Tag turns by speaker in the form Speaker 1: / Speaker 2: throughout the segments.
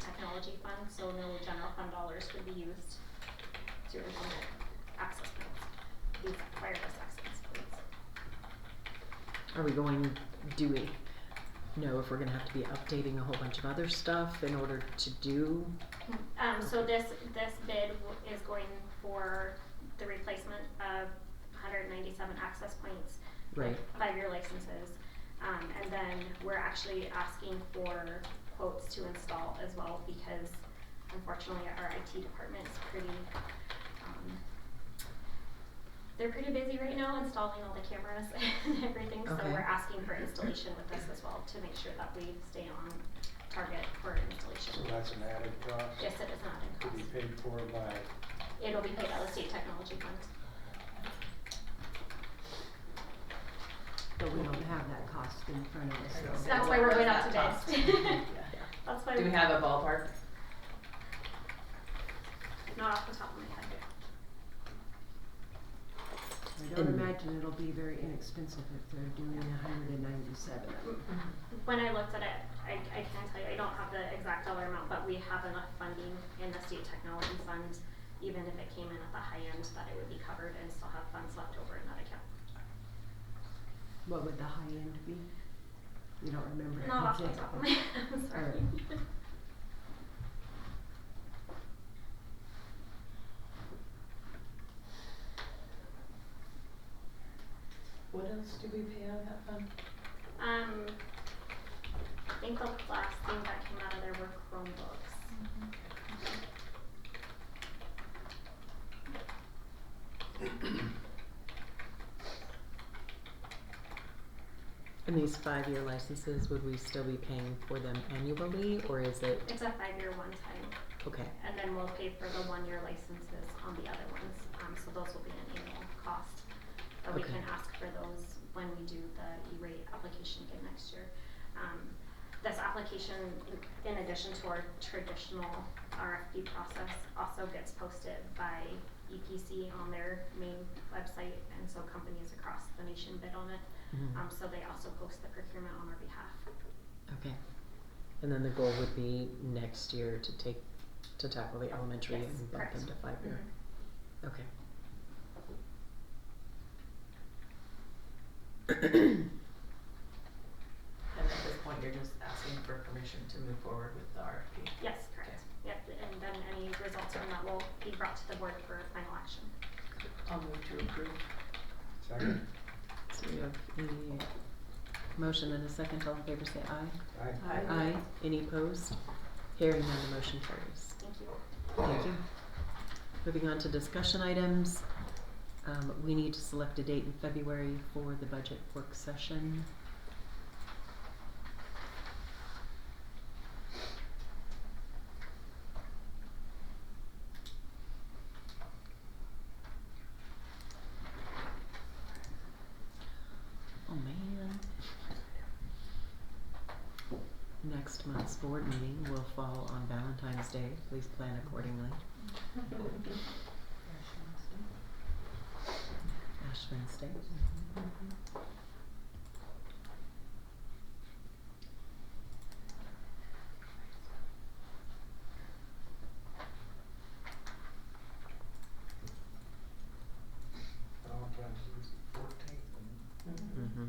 Speaker 1: technology fund, so no general fund dollars would be used to implement access points, these wireless access points.
Speaker 2: Are we going, do we know if we're gonna have to be updating a whole bunch of other stuff in order to do?
Speaker 1: Um, so this, this bid w- is going for the replacement of hundred ninety-seven access points.
Speaker 2: Right.
Speaker 1: Five-year licenses, um, and then we're actually asking for quotes to install as well, because unfortunately, our IT department's pretty, um, they're pretty busy right now installing all the cameras and everything, so
Speaker 2: Okay.
Speaker 1: we're asking for installation with this as well, to make sure that we stay on target for installation.
Speaker 3: So that's an added cost
Speaker 1: Yes, it is not in
Speaker 3: to be
Speaker 1: cost.
Speaker 3: paid for by,
Speaker 1: It'll be paid out of state technology fund.
Speaker 4: But we don't have that cost in front of us.
Speaker 1: So
Speaker 4: so-
Speaker 1: that's why we're going out to
Speaker 5: That's
Speaker 1: bid.
Speaker 2: Yeah.
Speaker 1: That's why.
Speaker 5: Do we
Speaker 1: we're-
Speaker 5: have a ballpark?
Speaker 1: Not off the top of my head.
Speaker 4: I don't
Speaker 2: And-
Speaker 4: imagine it'll be very inexpensive if they're doing hundred and ninety-seven.
Speaker 1: When I looked at it, I, I can tell you, I don't have the exact dollar amount, but we have enough funding in the state technology fund, even if it came in at the high end, that it would be covered and still have funds left over in that account.
Speaker 4: What would the high end be? You don't remember?
Speaker 1: Not off the
Speaker 4: Okay.
Speaker 1: top of my head, I'm sorry.
Speaker 5: What else do we pay out of that fund?
Speaker 1: Um, I think the last thing that came out of there were Chromebooks.
Speaker 2: And these five-year licenses, would we still be paying for them annually, or is it,
Speaker 1: It's a five-year one-time.
Speaker 2: okay,
Speaker 1: And then we'll pay for the one-year licenses on the other ones, um, so those will be an annual cost. But we
Speaker 2: Okay.
Speaker 1: can ask for those when we do the E-rate application again next year. Um, this application, in- in addition to our traditional RFP process, also gets posted by EPC on their main website, and so companies across the nation bid on it.
Speaker 2: Mhm.
Speaker 1: Um, so they also post the procurement on our behalf.
Speaker 2: okay. And then the goal would be next year to take, to tackle the elementary
Speaker 1: Yes,
Speaker 2: and bump
Speaker 1: correct. Mm-hmm.
Speaker 2: them to five-year, okay.
Speaker 5: And at this point, you're just asking for permission to move forward with the RFP.
Speaker 1: Yes, correct. Yep, and then any results from that will be brought to the board for final action.
Speaker 5: I'll move to approve.
Speaker 3: second,
Speaker 2: So we have a motion and a second, all in favor say aye.
Speaker 3: aye.
Speaker 5: Aye.
Speaker 2: Any opposed? Hearing none, the motion carries.
Speaker 1: Thank you.
Speaker 2: Thank you. Moving on to discussion items. Um, we need to select a date in February for the budget work session. Oh, man. Next month's board meeting will fall on Valentine's Day. Please plan accordingly. Ash Wednesday.
Speaker 3: Valentine's is the fourteenth,
Speaker 2: Mm-hmm.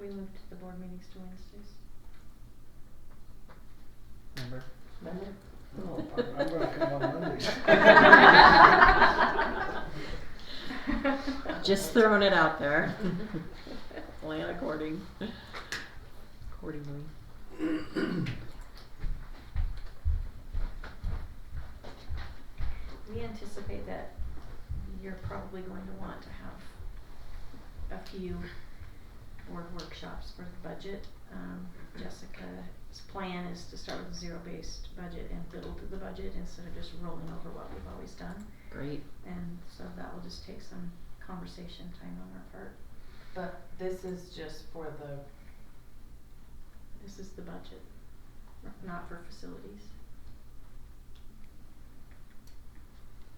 Speaker 6: We moved the board meetings to Wednesdays.
Speaker 2: Remember?
Speaker 5: Remember?
Speaker 3: No, I'm- I'm gonna come on
Speaker 6: Mondays.
Speaker 2: Just throwing it out there. Plan according. Accordingly.
Speaker 6: We anticipate that you're probably going to want to have a few board workshops for the budget. Um, Jessica's plan is to start with a zero-based budget and build the budget instead of just rolling over what we've always done.
Speaker 2: Great.
Speaker 6: And so that will just take some conversation time on our part.
Speaker 5: But this is just for the,
Speaker 6: This is the budget, n- not for facilities.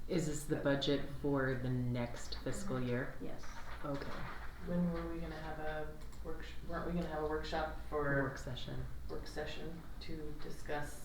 Speaker 2: Is this the budget for the next fiscal year?
Speaker 6: Yes.
Speaker 2: Okay.
Speaker 5: when were we gonna have a workshop, weren't we gonna have a workshop for
Speaker 2: Work session.
Speaker 5: work session to discuss